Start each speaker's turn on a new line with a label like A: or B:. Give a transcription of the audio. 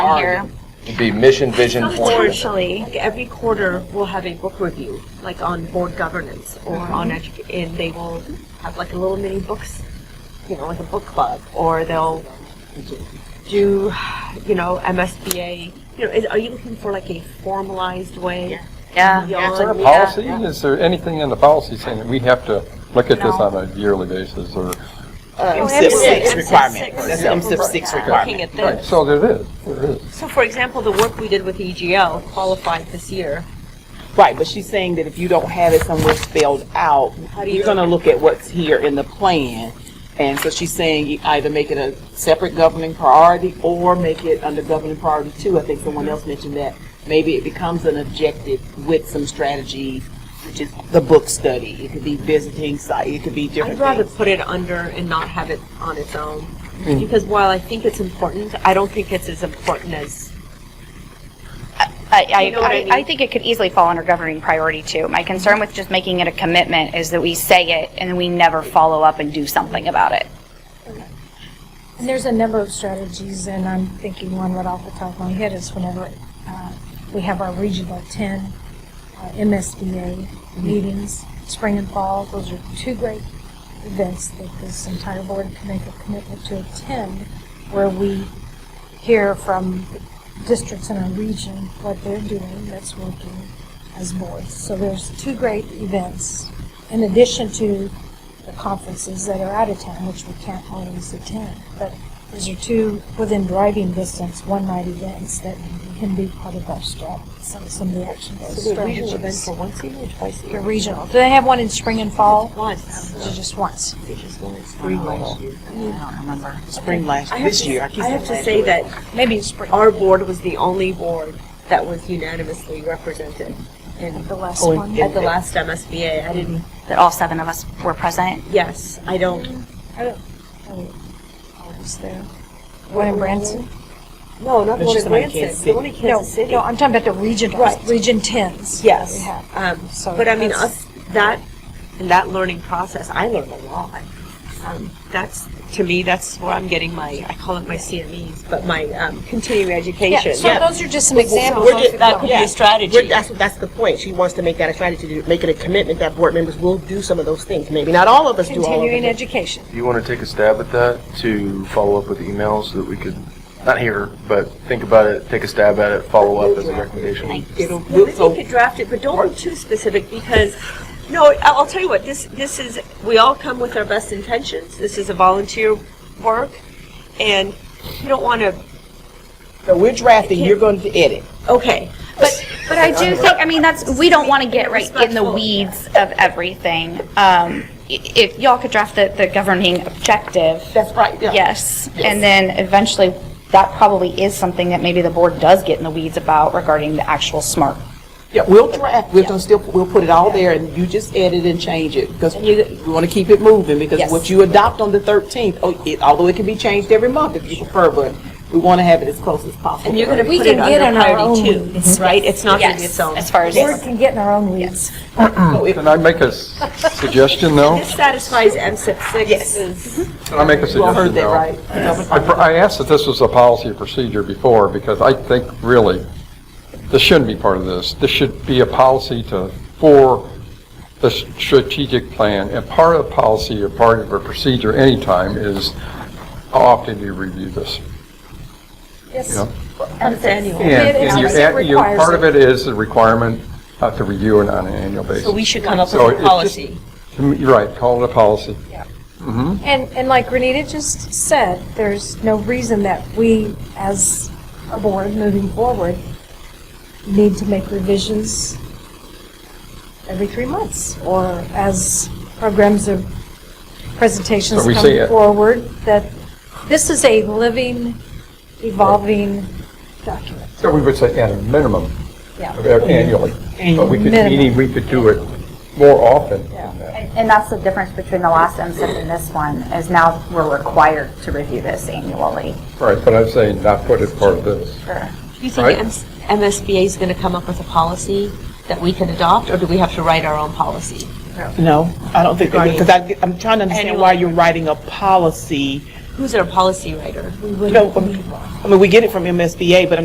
A: are
B: here.
A: you? It'd be mission, vision, point.
B: Essentially,
C: Like every quarter, we'll have a book review, like on board governance or on edu- and they will have like a little mini books, you know, like a book club, or they'll do, you know, MSBA. You know, is, are you looking for like a formalized way?
B: yeah.
C: Yeah.
B: it's like-
C: Yeah.
D: Policy, is there anything in the policy saying that we have to look at this
B: No.
D: on a yearly basis or?
E: MSIP six
C: MSIP
E: requirement.
C: Oh, six.
E: That's the MSIP six
C: Looking
E: requirement.
C: at this.
D: So there is, there is.
C: So, for example, the work we did with EGL qualified this year.
E: Right, but she's saying that if you don't have it somewhere spelled out,
C: How do you
E: you're
C: do
E: gonna look at what's here in the plan. And so she's saying you either make it a separate governing priority or make it under governing priority two. I think someone else mentioned that. Maybe it becomes an objective with some strategies, which is the book study. It could be visiting site, it could be
C: I'd
E: different
C: rather
E: things.
C: put it under and not have it on its own. Because while I think it's important, I don't think it's as important as
B: I,
C: You know what I
B: I,
C: mean?
B: I think it could easily fall under governing priority too. My concern with just making it a commitment is that we say it and then we never follow up and do something about it.
F: And there's a number of strategies, and I'm thinking one right off the top of my head is whenever uh, we have our regional 10 uh, MSBA meetings, spring and fall, those are two great events that this entire board can make a commitment to attend, where we hear from districts in our region what they're doing that's working as boards. So there's two great events, in addition to the conferences that are out of town, which we can't always attend. But those are two within driving distance, one-night events that can be part of our strat, some, some of the action
C: the regional event for
F: strategies.
C: once a year or twice a
F: The
C: year.
F: regional, do they have one in spring and fall?
C: Once.
F: Or Just once?
E: Spring last year. Spring last,
C: I have
E: this
C: to-
E: year. I keep
C: I have
E: saying
C: to
E: last
C: say
E: year.
C: that
F: Maybe in spring.
C: our board was the only board that was unanimously represented in
F: The last
E: Oh,
F: one?
C: at the last MSBA. I didn't.
B: That all seven of us were present.
C: Yes, I don't.
F: I don't, oh, I was there. One in Branson?
C: No, not the
E: But
C: one
E: she's
C: in
E: talking about
C: Branson.
E: Kansas
C: The one in
F: No,
C: Kansas City.
F: no, I'm talking about the regional,
C: Right.
F: region tens. that we
C: Yes.
F: have.
C: Um,
F: So
C: but I mean,
F: that's-
C: us, that, in that learning process, I learned a lot. Um, that's, to me, that's where I'm getting my, I call it my CMEs, but my um, continuing education.
F: Yeah, so those are just some
C: So
F: examples.
C: we're just- That could be
E: Yeah.
C: a
G: We're-
C: strategy.
G: That's, that's the point. She wants to make that a strategy, to make it a commitment that board members will do some of those things. Maybe not all of us do all of
F: Continuing
G: them.
F: education.
H: Do you want to take a stab at that to follow up with emails so that we could, not here, but think about it, take a stab at it, follow up as a recommendation?
E: It'll,
C: Well, maybe
E: so
C: you could draft it, but don't be too specific because, no, I- I'll tell you what, this, this is, we all come with our best intentions. This is a volunteer work and you don't want to,
E: So we're drafting, you're going to edit.
C: okay.
B: But, but I do think, I mean, that's, we don't want to get right in the
C: Respectful.
B: weeds of everything. Um, i- if y'all could draft the, the governing objective,
E: That's right, yeah.
B: yes. And then eventually, that probably is something that maybe the board does get in the weeds about regarding the actual SMART.
E: Yeah, we'll draft, we're gonna still, we'll put it all there, and you just edit and change it, because we wanna keep it moving, because
B: Yes.
E: what you adopt on the thirteenth, although it can be changed every month if you prefer, but we wanna have it as close as possible.
C: And you're going to
F: We
C: put it
F: can get in
C: under
F: our
C: priority
F: own
C: two,
F: weeds.
C: right? It's not going to be
B: Yes,
C: its own.
B: as far as,
F: We can get in our own weeds.
D: Can I make a s- suggestion though?
C: This satisfies MSIP six.
E: Yes.
D: Can I make a
E: You all heard
D: suggestion
E: that,
D: though?
E: right?
D: I pr- I asked if this was a policy or procedure before, because I think really, this shouldn't be part of this. This should be a policy to, for the s- strategic plan, and part of policy or part of a procedure anytime is how often do you review this?
F: Yes.
D: Yeah.
C: That's annual.
D: And
F: it's-
D: and you
F: it
D: add- you-
F: requires
D: part of it is the requirement uh, to review it on an annual basis.
C: So we should come up
D: So
C: with
D: it
C: a
D: just-
C: policy.
D: To me- You're right, call it a policy. Mm-hmm.
F: And, and like Renita just said, there's no reason that we, as a board moving forward, need to make revisions every three months, or as programs or presentations
D: So we say uh,
F: come
D: it.
F: forward, that this is a living, evolving document.
D: So we would say at a minimum
F: Yeah.
D: of a- annually, but we could,
F: Minimum.
D: meaning we could do it more often than that.
B: And and that's the difference between the last MSIP and this one, is now we're required to review this annually.
D: Right, but I'm saying not put it part of this.
C: Do you think
D: Right.
C: MS MSBA is going to come up with a policy that we can adopt, or do we have to write our own policy?
E: No, I don't think, because I, I'm trying to understand
C: Annual.
E: why you're writing a policy.
C: Who's our policy writer?
E: You know, I mean, we get it from MSBA, but